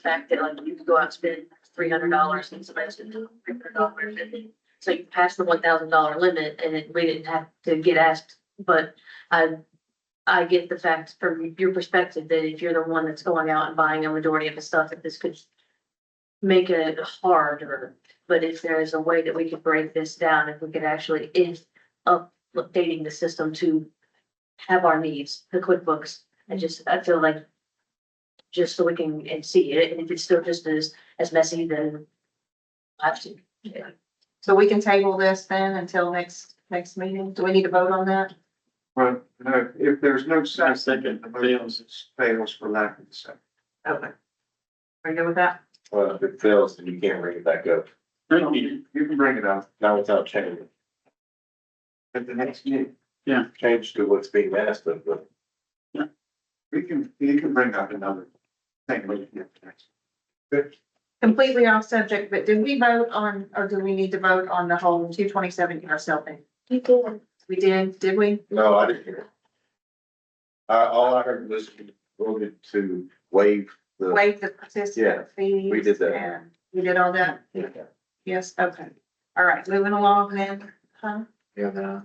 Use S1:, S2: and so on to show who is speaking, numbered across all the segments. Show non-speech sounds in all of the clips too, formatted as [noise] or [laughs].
S1: fact that like you could go out and spend three hundred dollars and somebody's gonna do three hundred dollars. So you pass the one thousand dollar limit and it, we didn't have to get asked, but I, I get the fact from your perspective that if you're the one that's going out and buying a majority of the stuff, that this could make it harder. But if there is a way that we could break this down, if we could actually, if updating the system to have our needs, the QuickBooks, I just, I feel like just so we can and see it, and if it's still just as, as messy, then I have to.
S2: So we can table this then until next, next meeting? Do we need to vote on that?
S3: Well, no, uh, if there's no
S4: I
S3: second,
S4: second
S3: the motion
S4: Dale's.
S3: fails for lack of a second.
S2: Okay. Are you good with that?
S5: Well, if it fails, then you can't bring it back up,
S3: You can bring it up
S5: not without changing,
S3: at the next meeting.
S5: change to what's being asked of, but
S3: We can, you can bring up another thing. when you get to next.
S2: Completely off subject, but did we vote on, or do we need to vote on the whole two twenty-seven yourself thing?
S1: You can.
S2: We did, did we?
S5: no, I didn't hear. it. I all I heard was you voted to waive the,
S2: Waive the
S5: Yeah,
S2: participant fees?
S5: we did that.
S2: and We did all that?
S5: yeah,
S2: Yes, okay. All right, moving along then, huh?
S6: Yeah,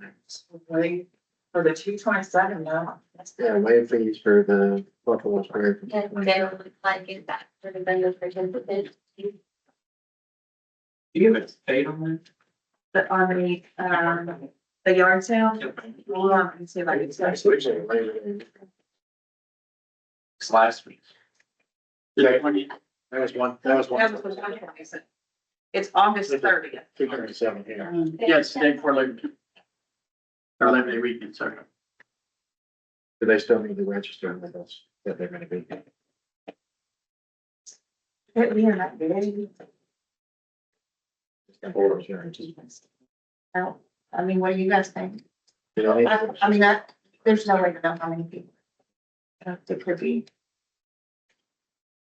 S2: Wait, for the two twenty-seven, no.
S6: the wave fees for the Buffalo Spring.
S7: Yeah, they would like it back for the vendor for ten percent.
S4: Do you have a date on
S2: But on the, um, the yard sale?
S4: that?
S2: Hold on, and see if I can.
S4: It's last week. Yeah, twenty, that was one, that was
S2: That was the one twenty-seven. It's August thirtieth.
S6: Two twenty-seven here.
S4: Yes, day before Labor Day. Or Labor Day weekend, sorry.
S6: Do they still need to register with us that they're gonna be?
S2: We are not very,
S6: Or is there- You
S2: no, I mean, what do you guys think?
S6: know, it-
S2: I, I mean, that, there's no way to know how many people. Uh, It could be,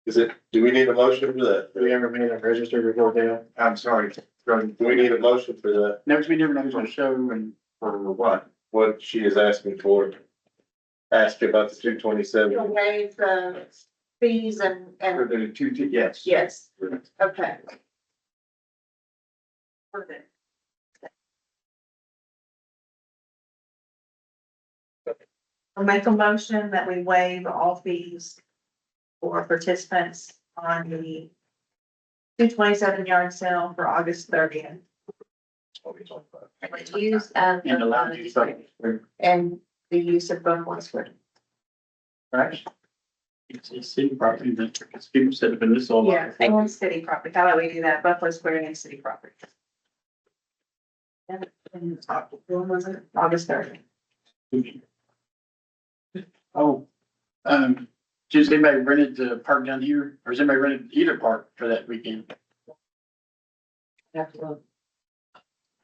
S5: is it, do we need a motion for that?
S6: have we ever made them register before Dale?
S3: I'm sorry, going
S5: Do we need a motion for that,
S4: Next, we never know who's on show and
S3: for what?
S5: what she is asking for? Ask about the two
S2: you'll
S5: twenty-seven,
S2: waive the fees and,
S3: For
S2: and,
S3: the two, two- yes.
S2: yes, okay. Perfect. I'll make a motion that we waive all fees for participants on the two twenty-seven yard sale for August thirtieth.
S1: Use of.
S4: and allowed you to.
S2: and the use of Bone Westwood.
S4: Right. It's a city property that, because people said, but this all.
S2: Yeah, and city property. How about we do that? Buffalo Square and city property. And- and When was it? August third.
S4: Oh, um, does anybody rented the park down here, or has anybody rented either park for that weekend?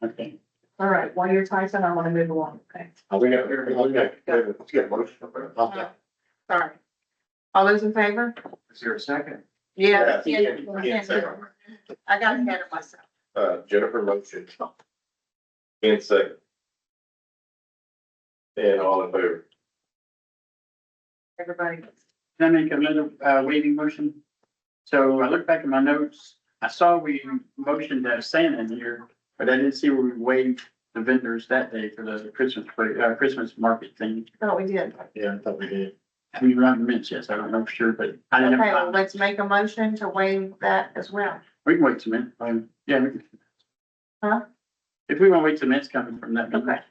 S4: Okay.
S2: All right, while you're typing, I want to move along, okay?
S5: we got, we got, let's get a motion.
S2: Uh, Sorry. All those in favor?
S3: Is there a second?
S2: Yeah,
S5: Yeah, you can- you can say it.
S2: I got ahead of myself.
S5: Uh, Jennifer motion. And second. And all in favor?
S2: Everybody.
S4: Can I make another uh waiving motion? So I looked back at my notes, I saw we motioned to have Santa in here, but I didn't see where we waived the vendors that day for the Christmas, play- uh, Christmas market thing.
S2: Oh, we did.
S6: Yeah, I thought we did.
S4: I mean, around the mints, yes, I don't know for sure, but I
S2: Okay,
S4: didn't.
S2: well,
S4: have-
S2: let's make a motion to waive that as well.
S4: We can wait a minute, um, yeah. we can-
S2: Huh?
S4: If we want to wait till minutes coming from that.
S2: Okay.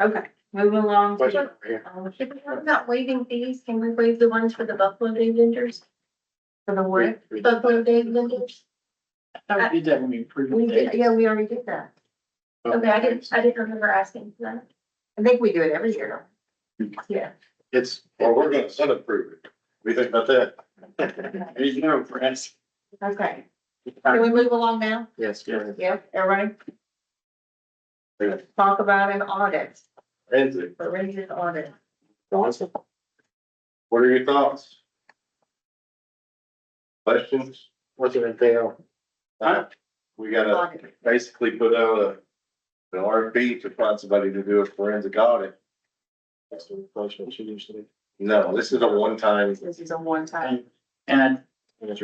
S2: Okay, moving along.
S6: Question
S2: to-
S6: over here.
S2: um,
S7: If we talk about waiving fees, can we waive the ones for the Buffalo Day vendors,
S2: For the word.
S6: We- we-
S7: Buffalo Day vendors?
S4: I thought we did that when we approved
S2: We
S4: the
S2: did,
S4: date.
S2: yeah, we already did that.
S7: Okay, I didn't, I didn't remember asking for that.
S2: I think we do it every year. Yeah. [laughs]
S6: It's,
S4: oh,
S5: Or we're gonna sun approve it. We think about that.
S4: As you know, for us.
S2: Okay. Can we move along now?
S6: yes, yeah.
S2: Yep, everybody?
S5: Yeah.
S2: Talk about an audit,
S5: Lindsay,
S2: forensic audit.
S6: Awesome.
S5: what are your thoughts? Questions?
S6: What's it entail?
S4: Huh?
S5: We gotta
S2: Audit.
S5: basically put out a, an RFP to find somebody to do a forensic audit.
S6: That's the replacement she used to do.
S5: No, this is a one-time,
S2: This is a one-time.
S4: And